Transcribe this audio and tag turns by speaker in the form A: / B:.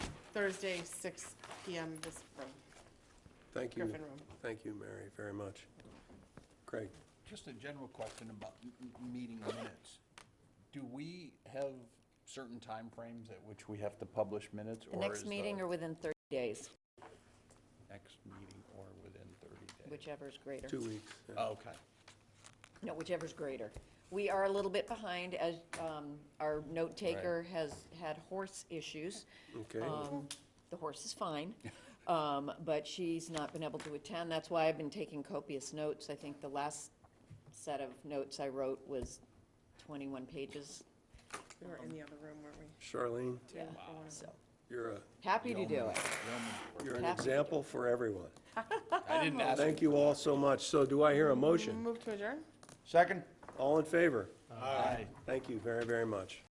A: Thursday, six PM, this room,
B: Thank you,
A: Griffin Room.
B: thank you, Mary, very much. Craig,
C: Just a general question about m- m- meeting minutes. Do we have certain timeframes at which we have to publish minutes?
D: The
C: or is
D: next
C: the
D: meeting or within 30 days,
C: Next meeting or within 30 days?
D: whichever is greater.
B: two weeks. yeah.
C: Okay.
D: No, whichever is greater. We are a little bit behind as um, our note taker has had horse issues.
B: Okay,
D: Um, The horse is fine, um, but she's not been able to attend. That's why I've been taking copious notes. I think the last set of notes I wrote was 21 pages.
A: We were in the other room, weren't we?
B: Charlene,
D: Yeah,
A: For one of
D: so,
B: you're a,
D: happy to do it.
B: you're an
D: Happy to do
B: example for everyone.
C: I didn't ask.
B: Thank you all so much. So do I hear a
A: them.
B: motion?
A: Move to adjourn?
C: Second?
B: All in favor?
C: Aye.
B: Thank you very, very much.